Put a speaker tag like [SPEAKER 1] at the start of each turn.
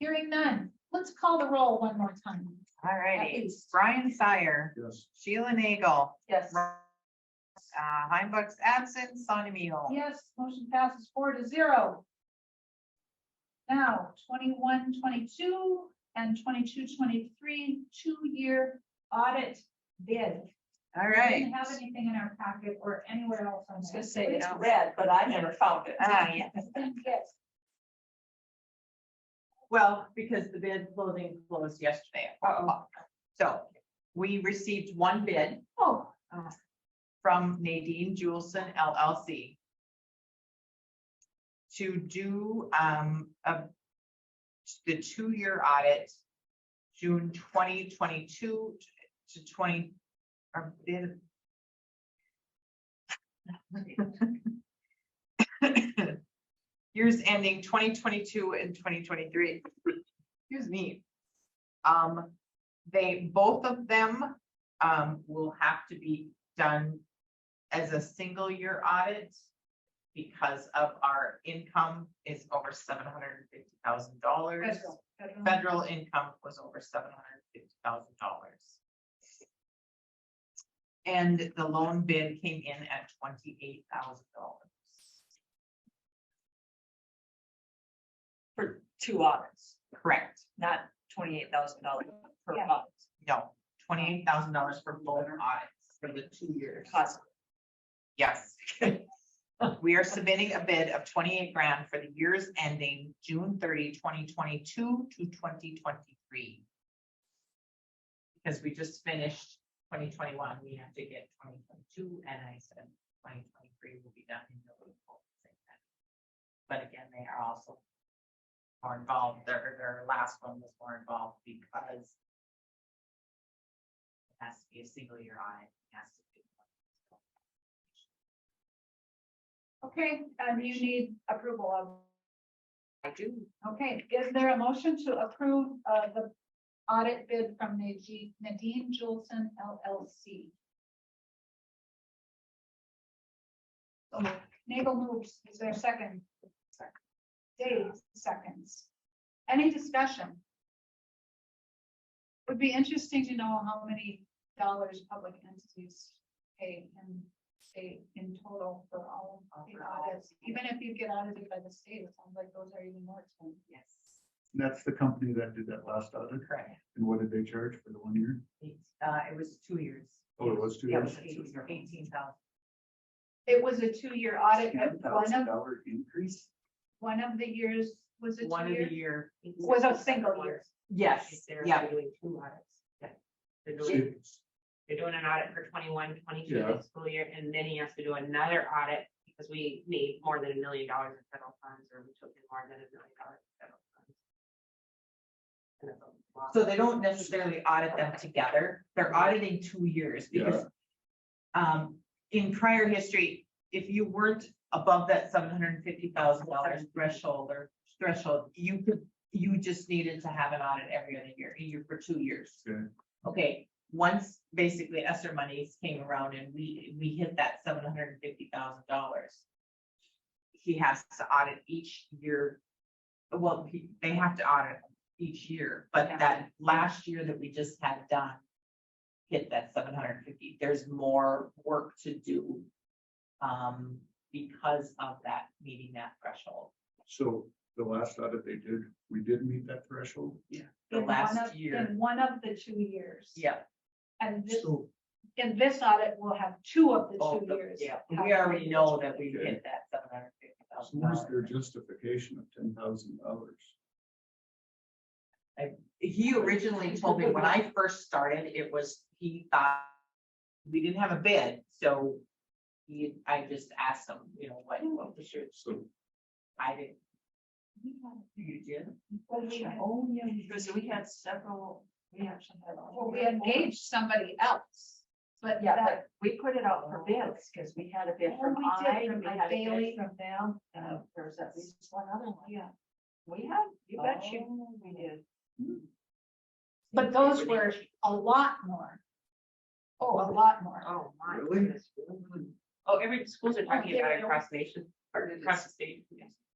[SPEAKER 1] Hearing none, let's call the roll one more time.
[SPEAKER 2] All
[SPEAKER 1] at
[SPEAKER 2] righty.
[SPEAKER 1] least.
[SPEAKER 2] Brian Sire,
[SPEAKER 3] Yes.
[SPEAKER 2] Sheila Nagel,
[SPEAKER 1] Yes.
[SPEAKER 2] uh, Heimbach's absent, Sonny Mule.
[SPEAKER 1] Yes, motion passes four to zero. Now, 21-22 and 22-23 two-year audit bid.
[SPEAKER 2] All
[SPEAKER 1] We
[SPEAKER 2] right.
[SPEAKER 1] Didn't have anything in our packet or anywhere else on
[SPEAKER 4] was gonna
[SPEAKER 1] this.
[SPEAKER 4] say, it's
[SPEAKER 1] Yes.
[SPEAKER 4] red, but I never found it.
[SPEAKER 2] Ah, yeah. Well, because the bid closing closed yesterday. at five o'clock. So we received one bid
[SPEAKER 1] Oh,
[SPEAKER 2] from Nadine Juleson LLC to do um, a- the two-year audit, June 2022 to 20, or bid. Years ending 2022 and 2023. Excuse me. Um, They, both of them um, will have to be done as a single year audit because of our income is over seven hundred and fifty thousand dollars.
[SPEAKER 1] federal, federal.
[SPEAKER 2] Federal income was over seven hundred and fifty thousand dollars. And the loan bid came in at twenty-eight thousand dollars.
[SPEAKER 4] For two audits,
[SPEAKER 2] Correct,
[SPEAKER 4] not twenty-eight thousand dollars per
[SPEAKER 1] Yeah.
[SPEAKER 4] audit.
[SPEAKER 2] no, twenty-eight thousand dollars for both audits for the two years.
[SPEAKER 4] Cost.
[SPEAKER 2] Yes. We are submitting a bid of twenty-eight grand for the years ending June 30, 2022 to twenty twenty-three. Because we just finished twenty twenty-one, we have to get twenty twenty-two, and I said twenty twenty-three will be done in the April. But again, they are also more involved, their, their last one was more involved because it has to be a single year audit, it has to be.
[SPEAKER 1] Okay, and you need approval of
[SPEAKER 2] I do.
[SPEAKER 1] Okay, is there a motion to approve uh the audit bid from Nadine- Nadine Jolson LLC? So Nagel moves, is there a second? Dave seconds. Any discussion? Would be interesting to know how many dollars public entities pay in state in total for all of the audits. Even if you get audited by the state, it sounds like those are even more expensive.
[SPEAKER 2] Yes,
[SPEAKER 3] That's the company that did that last audit.
[SPEAKER 2] correct.
[SPEAKER 3] And what did they charge for the one year?
[SPEAKER 2] It's, Uh, it was two years.
[SPEAKER 3] Oh, it was two
[SPEAKER 2] Yeah, it
[SPEAKER 3] years?
[SPEAKER 2] was Eighteen thousand.
[SPEAKER 1] It was a two-year audit,
[SPEAKER 3] Ten
[SPEAKER 1] but one
[SPEAKER 3] thousand
[SPEAKER 1] of,
[SPEAKER 3] dollar increase?
[SPEAKER 1] one of the years was a
[SPEAKER 2] One of
[SPEAKER 1] two-year.
[SPEAKER 2] the year.
[SPEAKER 1] Was a single year.
[SPEAKER 2] Yes,
[SPEAKER 5] They're
[SPEAKER 2] yeah.
[SPEAKER 5] doing two audits. Yeah. They're doing,
[SPEAKER 3] See,
[SPEAKER 5] they're doing an audit for 21, 22
[SPEAKER 3] Yeah.
[SPEAKER 5] school year, and then he has to do another audit because we need more than a million dollars in federal funds, or we took in more than a million dollars in federal funds. And it's a lot.
[SPEAKER 2] So they don't necessarily audit them together. They're auditing two years because um, in prior history, if you weren't above that seven hundred and fifty thousand dollars threshold or threshold, you could, you just needed to have an audit every other year, a year for two years.
[SPEAKER 3] Okay.
[SPEAKER 2] Okay, once basically Esther monies came around and we, we hit that seven hundred and fifty thousand dollars. He has to audit each year. Well, he- they have to audit each year, but
[SPEAKER 1] Yeah.
[SPEAKER 2] that last year that we just had done. Hit that seven hundred and fifty, there's more work to do. Um, because of that, meeting that threshold,
[SPEAKER 3] So the last audit they did, we did meet that threshold.
[SPEAKER 2] the
[SPEAKER 1] in one
[SPEAKER 2] last
[SPEAKER 1] of-
[SPEAKER 2] year,
[SPEAKER 1] In one of the two years.
[SPEAKER 2] yeah.
[SPEAKER 1] And this,
[SPEAKER 3] So
[SPEAKER 1] in this audit, we'll have two of the
[SPEAKER 4] Oh,
[SPEAKER 2] both
[SPEAKER 1] two
[SPEAKER 2] of-
[SPEAKER 1] years.
[SPEAKER 2] Yeah, we already know that we
[SPEAKER 3] Okay.
[SPEAKER 2] hit that seven hundred and fifty
[SPEAKER 3] so where's
[SPEAKER 2] thousand
[SPEAKER 3] their
[SPEAKER 2] dollars.
[SPEAKER 3] justification of ten thousand dollars?
[SPEAKER 2] He originally told me when I first started, it was, he thought. We didn't have a bid, so. He, I just asked him, you know, what, what was your,
[SPEAKER 3] So
[SPEAKER 2] I didn't. You did?
[SPEAKER 1] Well, we had-
[SPEAKER 2] Oh, yeah.
[SPEAKER 4] Because we had several, we actually had.
[SPEAKER 1] Well, we engaged somebody else, but
[SPEAKER 4] Yeah,
[SPEAKER 1] that.
[SPEAKER 4] but we put it out for bids because we had a bid
[SPEAKER 1] Oh,
[SPEAKER 4] from
[SPEAKER 1] we did,
[SPEAKER 4] I,
[SPEAKER 1] from
[SPEAKER 4] we had a
[SPEAKER 1] Bailey.
[SPEAKER 4] bid from them, and there was at least one other one.
[SPEAKER 1] Yeah.
[SPEAKER 4] We had, you bet you,
[SPEAKER 2] Oh.
[SPEAKER 4] we did.
[SPEAKER 1] But those were a lot more. Oh, a lot more.
[SPEAKER 5] Oh, my
[SPEAKER 3] Really?
[SPEAKER 5] goodness. Oh, every schools are talking about it across the nation, or across the state. yes.